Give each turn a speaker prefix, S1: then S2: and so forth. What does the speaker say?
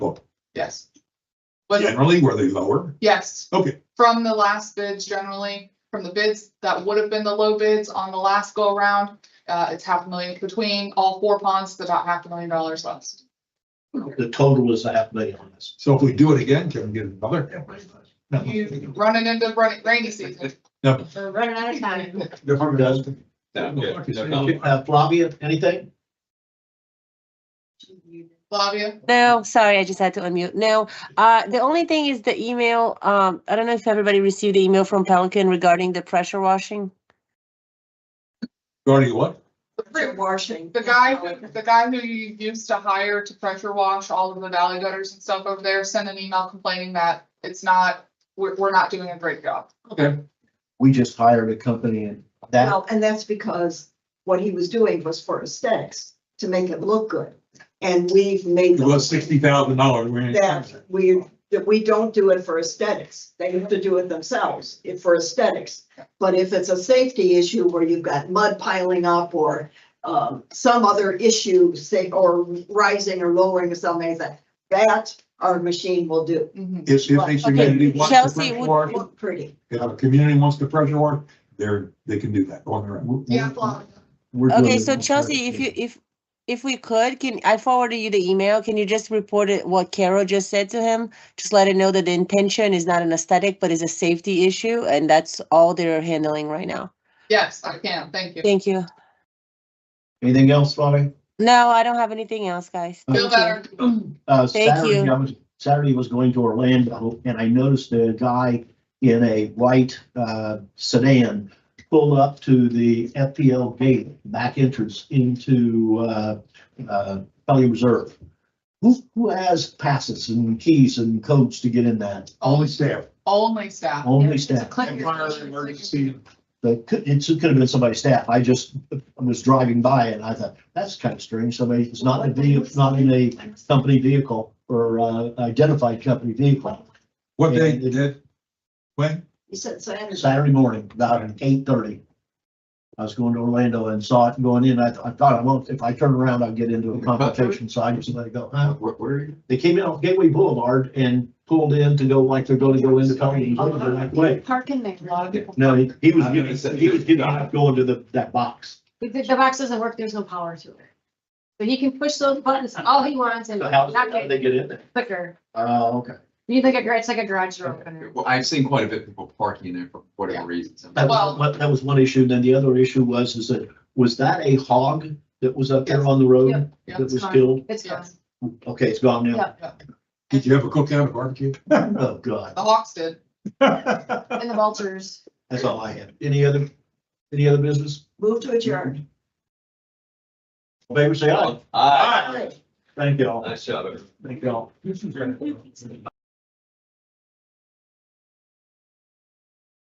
S1: Yes. Was,
S2: Generally, were they lower?
S1: yes,
S2: Okay,
S1: from the last bids generally, from the bids that would have been the low bids on the last go around. Uh, it's half a million between all four ponds, the top half a million dollars less.
S3: The total is a half million on this.
S2: so if we do it again, can we get another? No.
S1: You running into running rainy season.
S2: No.
S4: We're running out of time.
S3: Different does. Uh, Flavia, anything?
S1: Flavia,
S5: No, sorry, I just had to unmute. No, uh, the only thing is the email, um, I don't know if everybody received the email from Pelican regarding the pressure washing.
S2: Regarding what?
S4: Pressure washing.
S1: the guy, who- the guy who you used to hire to pressure wash all of the valley gutters and stuff over there, sent an email complaining that it's not, we're, we're not doing a great job.
S2: Okay,
S3: We just hired a company and that,
S5: Oh,
S6: Well, and that's because what he was doing was for aesthetics, to make it look good. And we've made.
S2: it was sixty thousand dollars.
S6: That we, that we don't do it for aesthetics. They have to do it themselves, if for aesthetics. But if it's a safety issue where you've got mud piling up or um, some other issue, say, or rising or lowering or something like that, that our machine will do.
S1: Mhm.
S2: If, if a community wants to
S5: Chelsea,
S2: pressure
S5: would-
S2: wash,
S6: Look pretty.
S2: if a community wants to pressure wash, they're, they can do that on their own.
S1: Yeah, Flavia.
S3: we're doing
S5: Okay,
S3: it
S5: so
S3: on
S5: Chelsea, if you,
S3: Thursday.
S5: if, if we could, can, I forwarded you the email, can you just report it, what Carol just said to him? Just let it know that the intention is not an aesthetic, but is a safety issue, and that's all they're handling right now.
S1: Yes, I can, thank you.
S5: Thank you.
S3: Anything else, Flavia?
S5: No, I don't have anything else, guys.
S1: Feel
S5: Thank you.
S1: better.
S3: Uh,
S5: Thank
S3: Saturday,
S5: you.
S3: I was, Saturday was going to Orlando and I noticed a guy in a white, uh, sedan pull up to the FPL gate, back entrance into, uh, uh, Pelican Reserve. Who, who has passes and keys and codes to get in that?
S2: Only staff.
S1: Only staff.
S3: Only
S1: It's a
S3: staff.
S1: clinic.
S3: But could, it could have been somebody's staff. I just was driving by and I thought, that's kind of strange. Somebody is not in a vehicle, not in a company vehicle or uh, identified company vehicle.
S2: What day did it? When?
S6: He said Saturday.
S3: Saturday morning, about eight thirty. I was going to Orlando and saw it going in. I, I thought I won't, if I turn around, I'll get into a confrontation. So I just let it go. Huh?
S2: where are you?
S3: They came in off Gateway Boulevard and pulled in to go like they're going to go into Pelican Reserve. and I went,
S4: Park in there. The,
S3: No, he he was getting, he was getting out, going to the, that box.
S4: the box doesn't work, there's no power to it. But he can push those buttons all he wants and
S3: So how's, how
S4: not
S3: did they
S4: get
S3: get in there?
S4: quicker.
S3: Oh, okay.
S4: You think a gar- it's like a garage door opener.
S7: Well, I've seen quite a bit of people parking in there for whatever reasons.
S3: That
S1: Well-
S3: was, one- that was one issue. Then the other issue was, is that, was that a hog that was up there on the
S4: Yeah.
S3: road
S1: Yeah,
S3: that
S4: it's
S3: was
S4: gone.
S3: killed?
S4: It's gone.
S1: Yes.
S3: Okay, it's gone now.
S4: Yeah,
S2: Did you have a cookout, a barbecue?
S3: Oh, God.
S1: The Hawks did.
S3: That's
S4: and the vultures.
S3: all I had. Any other, any other business?
S6: Move to adjourn.
S3: All in Favor say aye.
S7: Aye.
S3: Thank you all.
S7: Nice job, everyone.
S3: Thank you all.